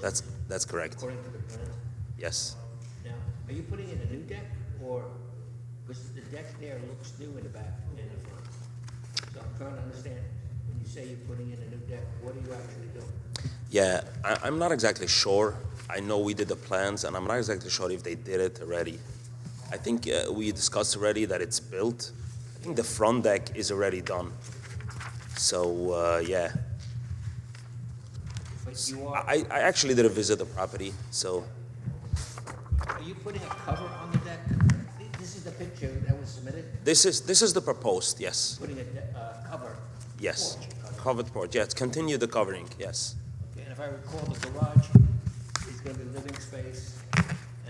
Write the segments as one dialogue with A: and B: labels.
A: That's, that's correct.
B: according to the plan.
A: Yes.
B: Now, are you putting in a new deck or, because the deck there looks new in the back and in the front. So I'm trying to understand, when you say you're putting in a new deck, what are you actually doing?
A: Yeah, I, I'm not exactly sure. I know we did the plans, and I'm not exactly sure if they did it already. I think uh, we discussed already that it's built. I think the front deck is already done. So uh, yeah,
B: But you are,
A: I, I actually did a visit the property. So
B: are you putting a cover on the deck? Th- This is the picture that was submitted,
A: this is this is the proposed. Yes,
B: putting a, de- uh cover.
A: yes,
B: porch cover.
A: covered porch. Yes, continue the covering. Yes,
B: Okay, and if I recall, the garage is gonna be living space,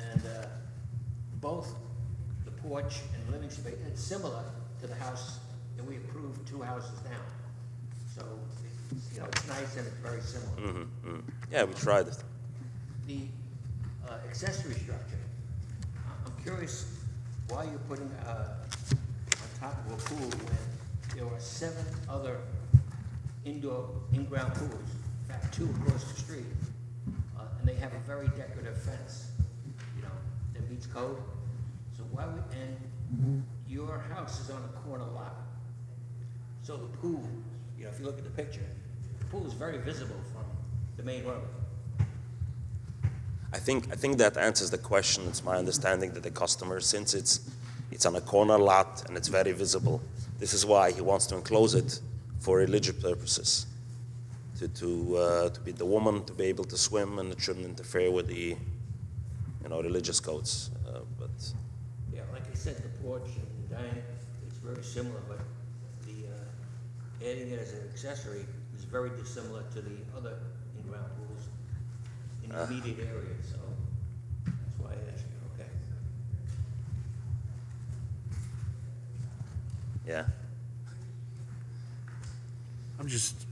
B: and, uh, both the porch and living space, it's similar to the house that we approved two houses down. So, it's, you know, it's nice and it's very similar.
A: Mm-hmm, yeah, we tried it.
B: The uh, accessory structure, I- I'm curious why you're putting, uh, on top of a pool when there are seven other indoor, in-ground pools, in fact, two across the street, uh, and they have a very decorative fence, you know, that meets code. So why would, and your house is on a corner lot. So the pool, you know, if you look at the picture, the pool is very visible from the main road.
A: I think, I think that answers the question. It's my understanding that the customer, since it's, it's on a corner lot and it's very visible, this is why he wants to enclose it for religious purposes. To, to, uh, to be the woman to be able to swim and it shouldn't interfere with the, you know, religious codes. Uh, but
B: Yeah, like I said, the porch and the dining, it's very similar, but the, uh, adding it as an accessory is very dissimilar to the other in-ground pools in the immediate area, so that's why I asked you, okay?
A: yeah,
C: I'm just,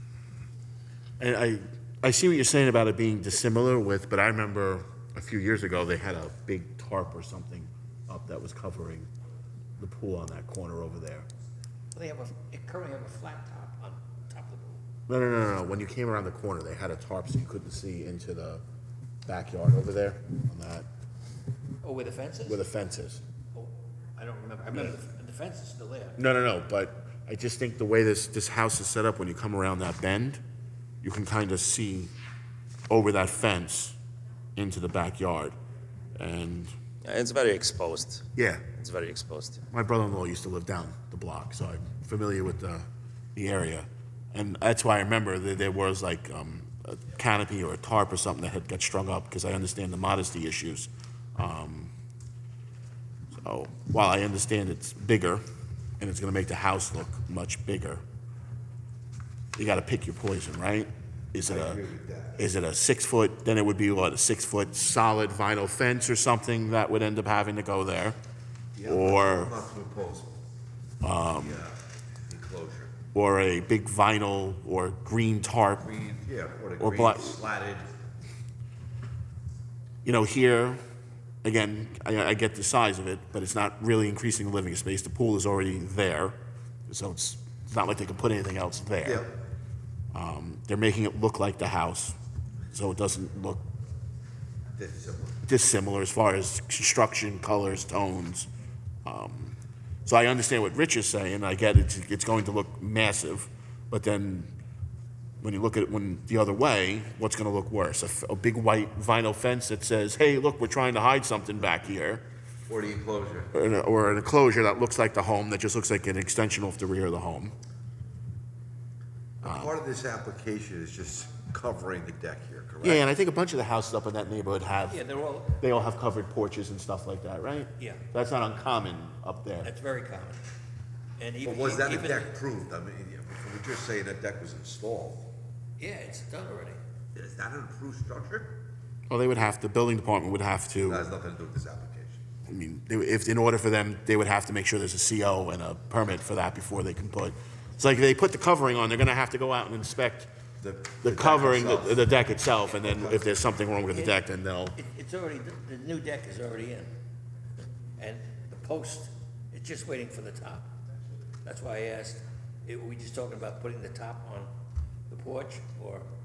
C: I, I, I see what you're saying about it being dissimilar with, but I remember a few years ago, they had a big tarp or something up that was covering the pool on that corner over there.
B: They have a, they currently have a flat top on top of the pool.
C: No, no, no, no, no, when you came around the corner, they had a tarp so you couldn't see into the backyard over there on that,
B: Oh, where the fence is?
C: where the fence is.
B: Oh, I don't remember, I remember the- the fence is still there.
C: No, no, no, but I just think the way this, this house is set up, when you come around that bend, you can kind of see over that fence into the backyard. And,
A: yeah it's very exposed.
C: yeah,
A: It's very exposed.
C: my brother-in-law used to live down the block, so I'm familiar with the, the area. And that's why I remember that there was like um, a canopy or a tarp or something that had got strung up, because I understand the modesty issues. Um, so while I understand it's bigger, and it's gonna make the house look much bigger, you gotta pick your poison, right? Is it a, is it a six foot, then it would be what, a six foot solid vinyl fence or something that would end up having to go there? Or?
D: Not proposal.
C: Um,
D: Yeah, uh, enclosure.
C: or a big vinyl or green tarp.
D: Green, yeah, or the
C: Or
D: green
C: black.
D: slatted.
C: You know, here, again, I, I get the size of it, but it's not really increasing the living space. The pool is already there, so it's, it's not like they can put anything else there. Um,
D: Yeah,
C: They're making it look like the house, so it doesn't look
D: that's similar.
C: dissimilar as far as construction, colors, tones. Um, so I understand what Rich is saying. I get it's, it's going to look massive, but then when you look at it when the other way, what's going to look worse? A f- A, big white vinyl fence that says, "Hey, look, we're trying to hide something back here,"
D: Or the enclosure.
C: or an, or an enclosure that looks like the home that just looks like an extension off the rear of the home.
D: Part of this application is just covering the deck here,
C: Yeah,
D: correct?
C: and I think a bunch of the houses up in that neighborhood have
B: Yeah, they're all,
C: they all have covered porches and stuff like that, right?
B: Yeah.
C: that's not uncommon up there.
B: that's very common. And even.
D: But was that a
B: even-
D: deck proved? I mean, yeah, we're just saying that deck was installed.
B: Yeah, it's done already.
D: Is that an approved structure?
C: Well, they would have the building department would have to.
D: That has nothing to do with this application.
C: I mean, they- if, in order for them, they would have to make sure there's a CO and a permit for that before they can put, it's like they put the covering on, they're gonna have to go out and inspect
D: The- the
C: the
D: deck
C: covering, the-
D: itself.
C: the deck itself, and then if there's something wrong with the deck, then they'll,
B: It, it's already, the- the new deck is already in. And the post, it's just waiting for the top. That's why I asked, eh, were we just talking about putting the top on the porch or